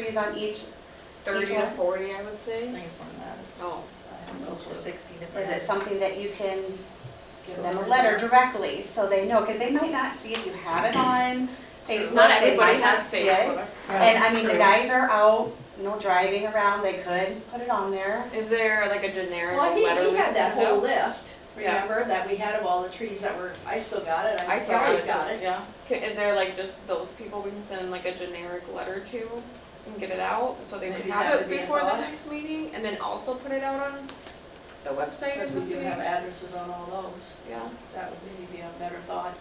trees on each, Thirty to Each one? forty, I would I say. think it's more than that, it's Oh, close to sixty different. is it something that you can give them a letter directly so they know? Because they might not see if you have it on Facebook, not they everybody might not has see it. Facebook. And I mean, the True. guys are out, you know, driving around, they could put it on there. Is there like a generic Well, he, letter? he we had can that send whole out? list, Yeah. remember, that we had of all the trees that were, I still got it, I I saw it. always got it. Yeah. Ca- Is there like just those people we can send like a generic letter to and get it out so they would Maybe have that it would be a before the thought. next meeting and then also put it out on the website as Because well? we do have addresses on all those, Yeah. that would maybe be a better thought.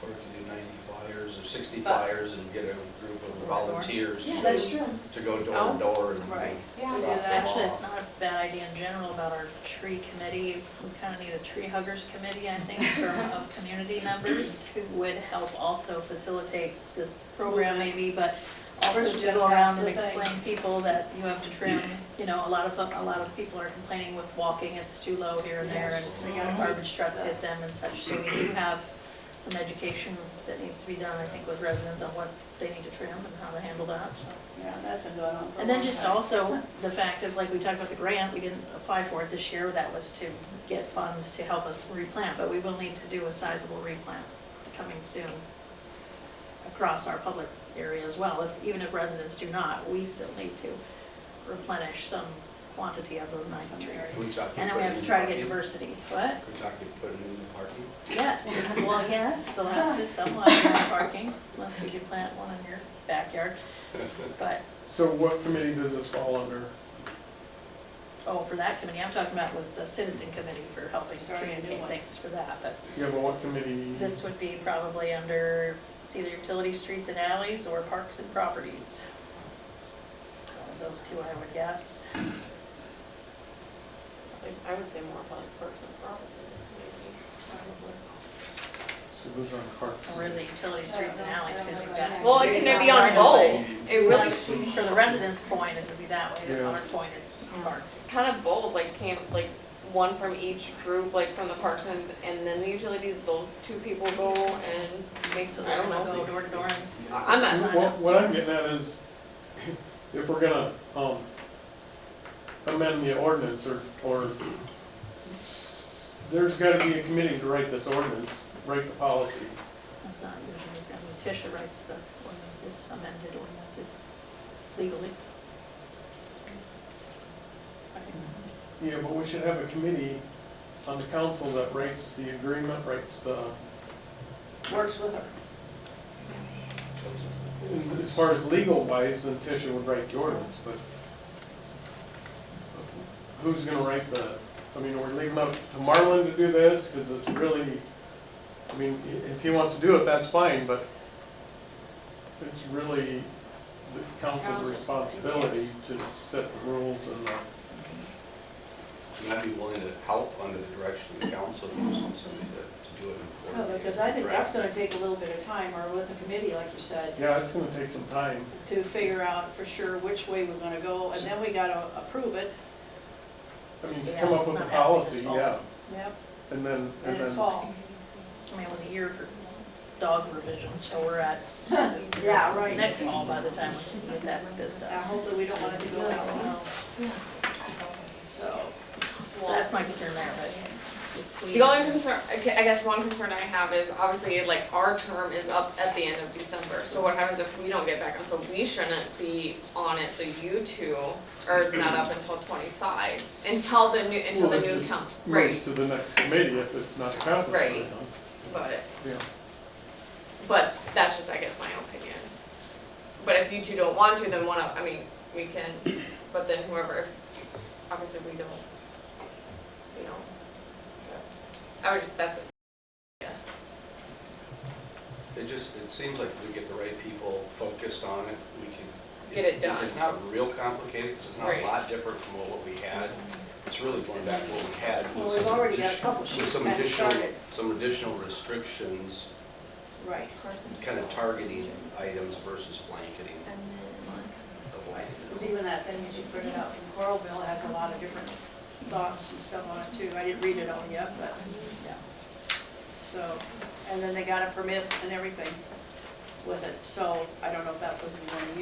Or we can do ninety flyers or sixty But- flyers and get a group of volunteers to, true. to go door to door and. Oh, Right. Yeah. We do drop them that. Actually, off. it's not a bad idea in general about our tree committee. We kind of need a tree huggers committee, I think, from, of community members who would help also facilitate this program maybe, but also First, to you go gotta around pass and the thing. explain people that you have to trim. You know, a lot of, a lot of people are complaining with walking, it's too low here and there, Yes, Mm-hmm. and garbage trucks hit them and such. So we do have some education that needs to be done, I think, with residents on what they need to trim and how to handle that, so. Yeah, that's been going on for a And then long just time. also the fact of, like, we talked about the grant, we didn't apply for it this year, that was to get funds to help us replant, but we will need to do a sizable replant coming soon across our public area as well, if, even if residents do not, we still need to replenish some quantity of those nine Can we trees. talk? And then we have to try to get diversity, what? We're talking, put it in the parking. Yes, well, yes, they'll have to somewhat in our parking, unless we could plant one in your backyard, but So what committee does this fall under? Oh, for that committee, I'm talking about was a citizen committee for helping Starting a new communicate one. things for that, but You have a what committee? this would be probably under, it's either utility streets and alleys or parks and properties. One of Those two, I would guess. Like, I would say more of like person probably. So those are on carts. Or is it utility streets and alleys, because you've got. Well, it it can can be be on on both. It really Like, For the residents' point, it would be that way, Yeah. the other point, it's parks. kind of both, like camp, like one from each group, like from the parks and, and then the utilities, those two people go and make, So I they're don't gonna know. go door to door and I'm not sign What, up. what I'm getting at is, if we're gonna, um, amend the ordinance or, or, there's gotta be a committee to write this ordinance, write the policy. That's not usually, I mean, Tisha writes the ordinances, amended ordinances legally. Right. Yeah, but we should have a committee on the council that writes the agreement, writes the, Works with her. Comes up. as far as legal wise, then Tisha would write the ordinance, but who's gonna write the, I mean, we're leaving up to Marlin to do this, because it's really, I mean, i- if he wants to do it, that's fine, but it's really the council's Council's, responsibility yes. to set the rules and the, And I'd be willing to help under the direction of the council, if you just want somebody to, to do it. and No, Oh, because I think that's coordinate gonna take a little bit of time, or with the committee, like you said, yeah, it's gonna take some time. to figure out for sure which way we're gonna go, and then we gotta approve it. I mean, to Yeah, come it's up with a not happening this policy, fall. yeah, Yep. and then, And and it's then, fall. I mean, it was a year for dog revisions, so we're at. Yeah, right. Next fall by the time we get that, this Now, done. hopefully, we don't want it to go that long, so. So that's my concern there, but. if we- The only concern, I gue- I guess one concern I have is obviously like our term is up at the end of December, so what happens if we don't get back on? So we shouldn't be on it, so you two, or it's not up until twenty-five, until the new, until Well, the it new just council, moves right, to the next committee if it's not accomplished. Right. but, Yeah. but that's just, I guess, my opinion. But if you two don't want to, then one of, I mean, we can, but then whoever, if- obviously we don't, you know. but I was just, that's just, yes. It just, it seems like if we get the right people focused on it, we can. Get it done. It's not real complicated, 'cause it's not Right. a lot different from what we had. It's really going back to what we had. with Well, we've some already got a addition- couple With sheets some kinda additional, started. some additional restrictions, Right. kind of targeting items versus blanketing the blanket. Because even that thing that you printed out from Coralville has a lot of different thoughts and stuff on it too. I didn't read it all yet, but, yeah. So, and then they got a permit and everything with it, so I don't know if that's what we want to use.